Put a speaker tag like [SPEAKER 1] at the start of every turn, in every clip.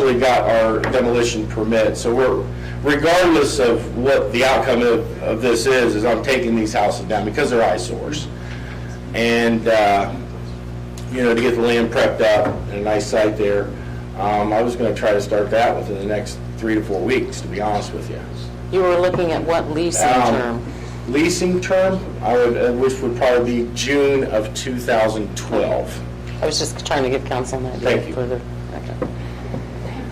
[SPEAKER 1] actually got our demolition permit, so we're, regardless of what the outcome of, of this is, is I'm taking these houses down because they're eyesores. And, uh, you know, to get the land prepped up and a nice site there. Um, I was gonna try to start that within the next three to four weeks, to be honest with you.
[SPEAKER 2] You were looking at what leasing
[SPEAKER 1] Um,
[SPEAKER 2] term?
[SPEAKER 1] Leasing term, I would, uh, which would probably be June of 2012.
[SPEAKER 2] I was just trying to give council an
[SPEAKER 1] Thank
[SPEAKER 2] idea
[SPEAKER 1] you.
[SPEAKER 2] further. Okay.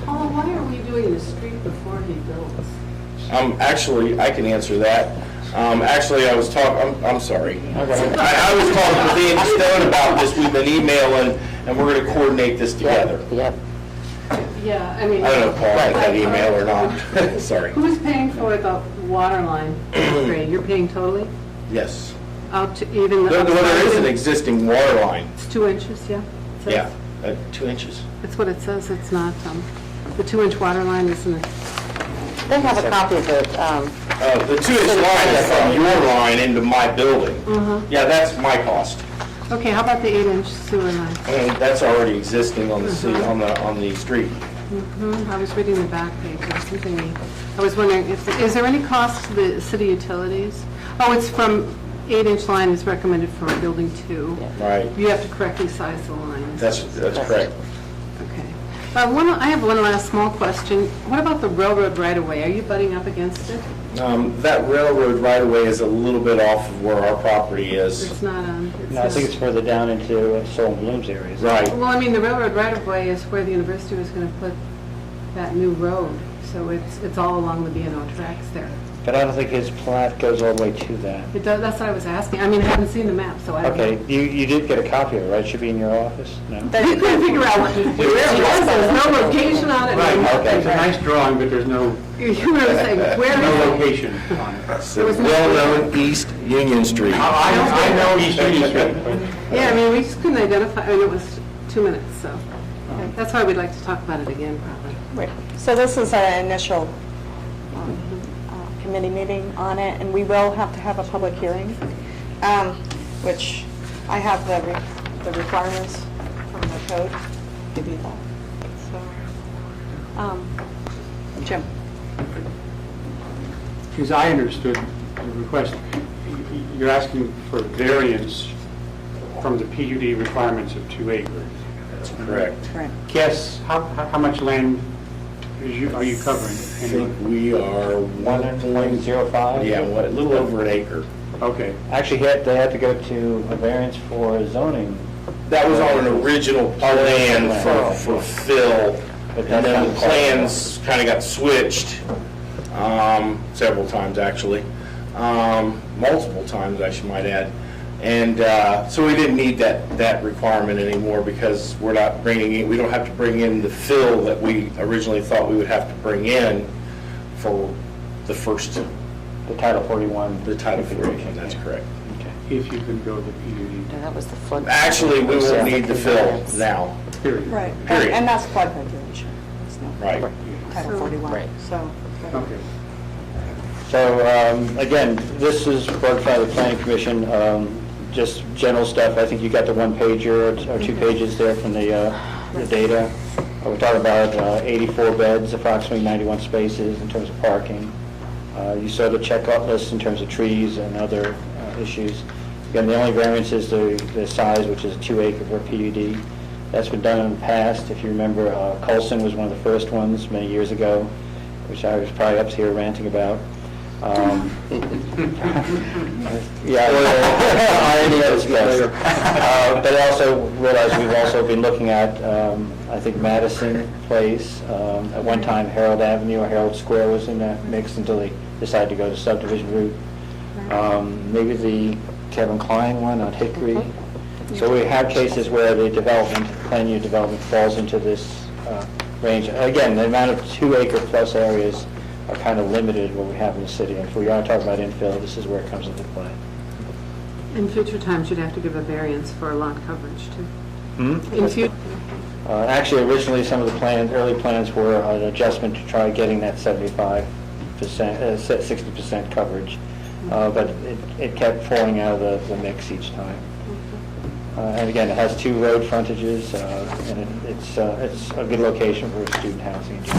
[SPEAKER 3] Paul, why are we doing the street before he builds?
[SPEAKER 1] Um, actually, I can answer that. Um, actually, I was talk, I'm, I'm sorry. I, I was talking to Dan Stone about this, we've been emailing, and we're gonna coordinate this together.
[SPEAKER 2] Yep.
[SPEAKER 3] Yeah, I mean.
[SPEAKER 1] I don't know, Paul, if that email or not, sorry.
[SPEAKER 3] Who's paying for the water line upgrade? You're paying totally?
[SPEAKER 1] Yes.
[SPEAKER 3] Out to even the.
[SPEAKER 1] There, well, there is an existing water line,
[SPEAKER 3] It's two inches, yeah? It says-
[SPEAKER 1] yeah, uh, two inches.
[SPEAKER 3] That's what it says, it's not, um, the two-inch water line isn't,
[SPEAKER 2] They have a copy of it. um,
[SPEAKER 1] Uh, the two inch line is from your line into my building. Yeah, that's my cost.
[SPEAKER 3] okay, how about the eight-inch sewer line?
[SPEAKER 1] And that's already existing on the city, on the, on the street.
[SPEAKER 3] Hmm, I was reading the back page, or something, we- I was wondering, if is there any cost to the city utilities? Oh, it's from, eight-inch line is recommended for building two.
[SPEAKER 1] Right,
[SPEAKER 3] You have to correctly size the lines.
[SPEAKER 1] that's, that's correct.
[SPEAKER 3] Okay. Uh, one- I have one last small question. What about the railroad right-of-way? Are you butting up against it?
[SPEAKER 1] Um, that railroad right away is a little bit off of where our property is.
[SPEAKER 3] It's not on...
[SPEAKER 4] No, I think it's
[SPEAKER 3] not-
[SPEAKER 4] further down into uh, Soul and Bloom's area. isn't it?
[SPEAKER 1] Right,
[SPEAKER 3] Well, I mean, the railroad right-of-way is where the university was going to put that new road, so it's it's all along the B and O tracks there.
[SPEAKER 4] But I don't think his plat goes all the way to that.
[SPEAKER 3] It does, that's what I was asking. I mean, I haven't seen the map, so I don't know.
[SPEAKER 4] Okay, you, you did get a copy of it, right? Should be in your office? No?
[SPEAKER 3] We couldn't figure out what it was. There's no location on it.
[SPEAKER 4] Right, okay.
[SPEAKER 5] It's a nice drawing, but there's no,
[SPEAKER 3] You were saying,
[SPEAKER 5] no
[SPEAKER 3] where is it?
[SPEAKER 5] location on it.
[SPEAKER 1] it's well-known East Union Street.
[SPEAKER 5] I, I know East Union Street, but
[SPEAKER 3] Yeah, I mean, we just couldn't identify, I mean, it was two minutes, so. That's why we'd like to talk about it again, probably.
[SPEAKER 6] Right. So this is our initial um, uh, committee meeting on it, and we will have to have a public hearing, um, which I have the re- the requirements from the code to do that. So, um, Jim?
[SPEAKER 5] as I understood the request, you're asking for variance from the PUD requirements of two acres.
[SPEAKER 1] Correct.
[SPEAKER 6] Right.
[SPEAKER 5] Guess, how, how how much land is you, are you covering?
[SPEAKER 1] I think we are one point,
[SPEAKER 4] Zero five?
[SPEAKER 1] yeah, what, a little over an acre.
[SPEAKER 5] Okay,
[SPEAKER 4] Actually, he had- they had to go to a variance for zoning,
[SPEAKER 1] That was on an original plan for, for Phil, and then the plans kind of got switched, um, several times, actually. Um, multiple times, I should might add. And, uh, so we didn't need that, that requirement anymore because we're not bringing, in- we don't have to bring in the fill that we originally thought we would have to bring in for the first,
[SPEAKER 4] the Title 41.
[SPEAKER 1] the Title 40, that's correct.
[SPEAKER 4] Okay.
[SPEAKER 5] if you can go the PUD,
[SPEAKER 2] And that was the flood.
[SPEAKER 1] Actually, we won't need the fill now,
[SPEAKER 5] period.
[SPEAKER 6] Right. And-
[SPEAKER 1] Period.
[SPEAKER 6] And that's flood regulation. It's not
[SPEAKER 1] right?
[SPEAKER 6] Title 41,
[SPEAKER 4] Right.
[SPEAKER 6] so.
[SPEAKER 5] Okay.
[SPEAKER 4] So, um, again, this is brought by the planning commission, um, just general stuff. I think you got the one pager or- or two pages there from the, uh, the data. Uh, We're talking about uh, 84 beds, approximately 91 spaces in terms of parking. Uh, You saw the checkout list in terms of trees and other uh, issues. Again, the only variance is the, the size, which is two acre for PUD. That's been done in the past. If you remember, uh, Colson was one of the first ones many years ago, which I was probably up here ranting about. Um, Yeah, I already know it's best. Uh, But I also realize we've also been looking at, um, I think Madison Place, um, at one time Harold Avenue or Harold Square was in that mix until they decided to go the subdivision route. Um, Maybe the Kevin Klein one on Hickory. So we have cases where the development, plan unit development falls into this uh, range. Again, the amount of two acre plus areas are kind of limited what we have in the city. If we are talking about infill, this is where it comes into play.
[SPEAKER 3] In future times, you'd have to give a variance for lot coverage, too. In future,
[SPEAKER 4] Uh, Actually, originally, some of the plans, early plans were an adjustment to try getting that 75%, uh, se- 60% coverage, Uh, but it- it kept falling out of the- the mix each time. Uh, And again, it has two road frontages, uh, and it- it's, uh, it's a good location for student housing in general.